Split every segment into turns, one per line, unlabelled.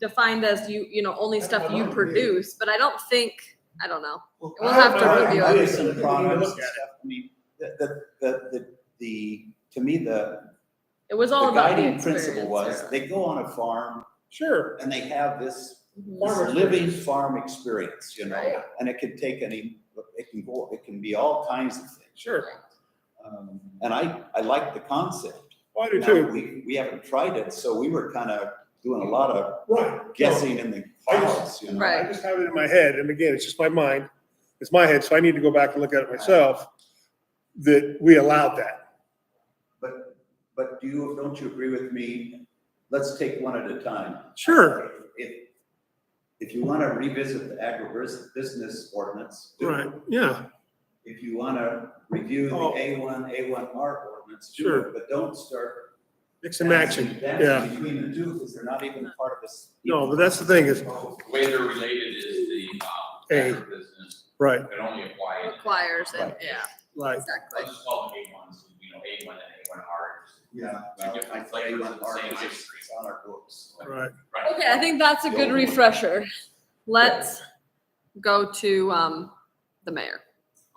defined as you, you know, only stuff you produce, but I don't think, I don't know. We'll
I
have
don't
to
know.
review
I
it.
do some products and
Yeah.
stuff. I mean,
The, the, the, the, the, to me, the,
It was all
the
about the
guiding
experience.
principle was,
yeah.
they go on a farm
Sure.
and they have this
Mhm.
farm- living farm experience, you know?
Right.
And it can take any, it can go, it can be all kinds of things.
Sure.
Um, And I, I like the concept.
Well, Oh, I do
Now,
too.
We, we haven't tried it, so we were kind of doing a lot of
Right.
guessing in the clouds, you know?
Right.
I just have it in my head, and again, it's just my mind, it's my head, so I need to go back and look at it myself, that we allowed that.
But, but do you, don't you agree with me? Let's take one at a time.
Sure.
If, if you want to revisit the agribusiness ordinance. do it.
Right, yeah,
If you want to review the
Oh.
A one, A one R ordinance, do
Sure.
it, but don't start.
mix and matching,
dancing
yeah.
Between the two, because they're not even part of this.
No, but that's the thing is,
The way they're related is the,
A.
uh, business,
right,
that only apply.
Requires it, yeah,
like,
exactly.
Let's just call them A ones, you know, A one and A one R.
Yeah.
Two different flavors of the same ice cream.
It's on our books.
right,
Right.
Okay, I think that's a good refresher. Let's go to, um, the mayor.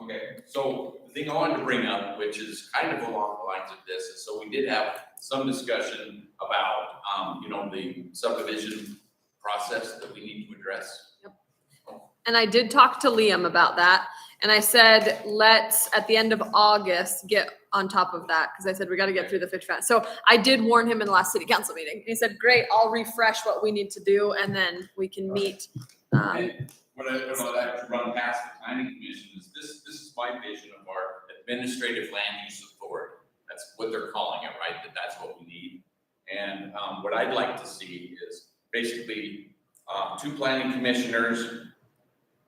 Okay, so the thing I wanted to bring up, which is kind of along the lines of this, is so we did have some discussion about, um, you know, the subdivision process that we need to address.
And I did talk to Liam about that. And I said, let's, at the end of August, get on top of that. Cause I said, we gotta get through the fish fence. So I did warn him in the last city council meeting. And he said, great, I'll refresh what we need to do and then we can meet. Um,
And What I, what I'd like to run past the planning commission is this, this is my vision of our administrative land use authority. That's what they're calling it, right? That that's what we need. And, um, what I'd like to see is basically, um, two planning commissioners,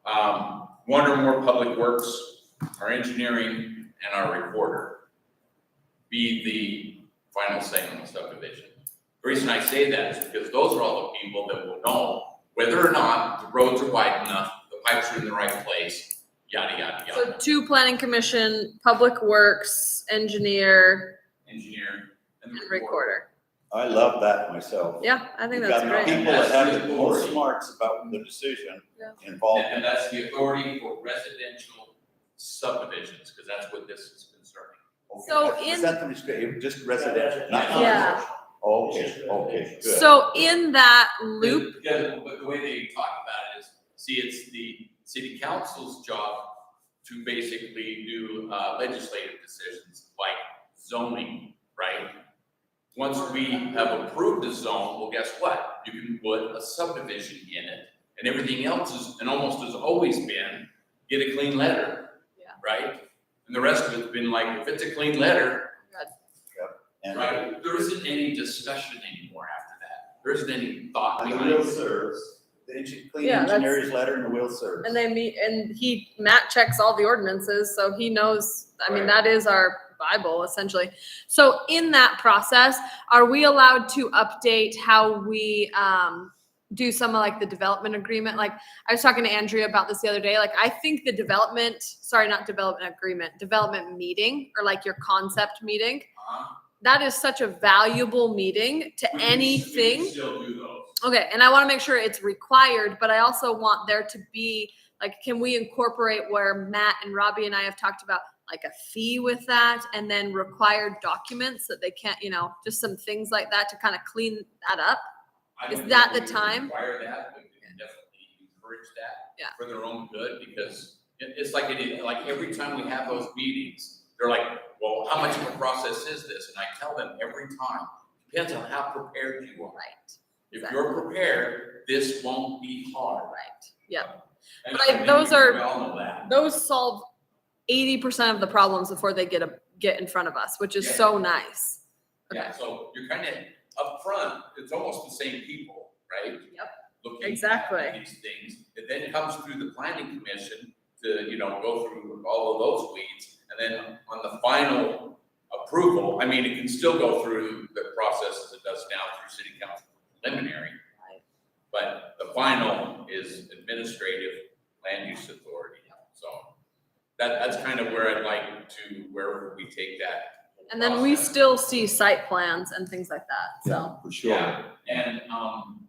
um, one or more public works, our engineering, and our recorder be the final say on the subdivision. The reason I say that is because those are all the people that will know whether or not the roads are wide enough, the pipes are in the right place, yada, yada,
So
yada.
two planning commission, public works, engineer,
Engineer and
and
the recorder.
recorder.
I love that myself.
Yeah, I think
You've
that's
got
great.
People that have the
That's
most
the-
marks about the decision
Yeah.
involved.
And that's the authority for residential subdivisions, because that's what this is concerning.
So
Okay.
in-
Is that the restriction, just residential? not
Yeah.
commercial? Okay, okay, good.
So in that loop,
Yeah, but the way they talk about it is, see, it's the city council's job to basically do uh, legislative decisions like zoning, right? Once we have approved a zone, well, guess what? You can put a subdivision in it. And everything else is, and almost has always been, get a clean letter.
Yeah.
Right? And the rest of it's been like, if it's a clean letter,
And-
right, there isn't any discussion anymore after that. There isn't any thought
And the
behind
will
it.
serves, the engi- clean
Yeah, that's-
engineer's letter and the will serves.
And they meet, and he, Matt checks all the ordinances, so he knows, I mean,
Right.
that is our Bible essentially. So in that process, are we allowed to update how we, um, do some of like the development agreement? Like, I was talking to Andrea about this the other day, like, I think the development, sorry, not development agreement, development meeting, or like your concept meeting,
Uh-huh.
that is such a valuable meeting to
We can- we can
anything.
Still do those.
Okay, and I want to make sure it's required, but I also want there to be like, can we incorporate where Matt and Robbie and I have talked about like a fee with that and then required documents that they can't, you know, just some things like that to kind of clean that up?
I
Is
don't
that
think
the
we would
time?
Require that, but we can definitely encourage that.
Yeah.
For their own good, because it, it's like, it, like every time we have those meetings, they're like, well, how much of a process is this? And I tell them every time, depends on how prepared you are.
Right,
If you're prepared, this won't be hard.
right. Yeah.
And
But I-
I think
those
we
are-
all know that.
Those solve eighty percent of the problems before they get a, get in front of us, which is
Yeah.
so nice. Okay.
Yeah, so you're kind of upfront, it's almost the same people, right?
Yep.
Looking at
Exactly.
These things, it then comes through the planning commission to, you know, go through all of those weeds. And then on the final approval, I mean, it can still go through the process as it does now through city council preliminary.
Right.
But the final is administrative land use authority, so that, that's kind of where I'd like to, where we take that.
And then we
process.
still see site plans and things like that, so.
Yeah, for sure.
Yeah, and, um,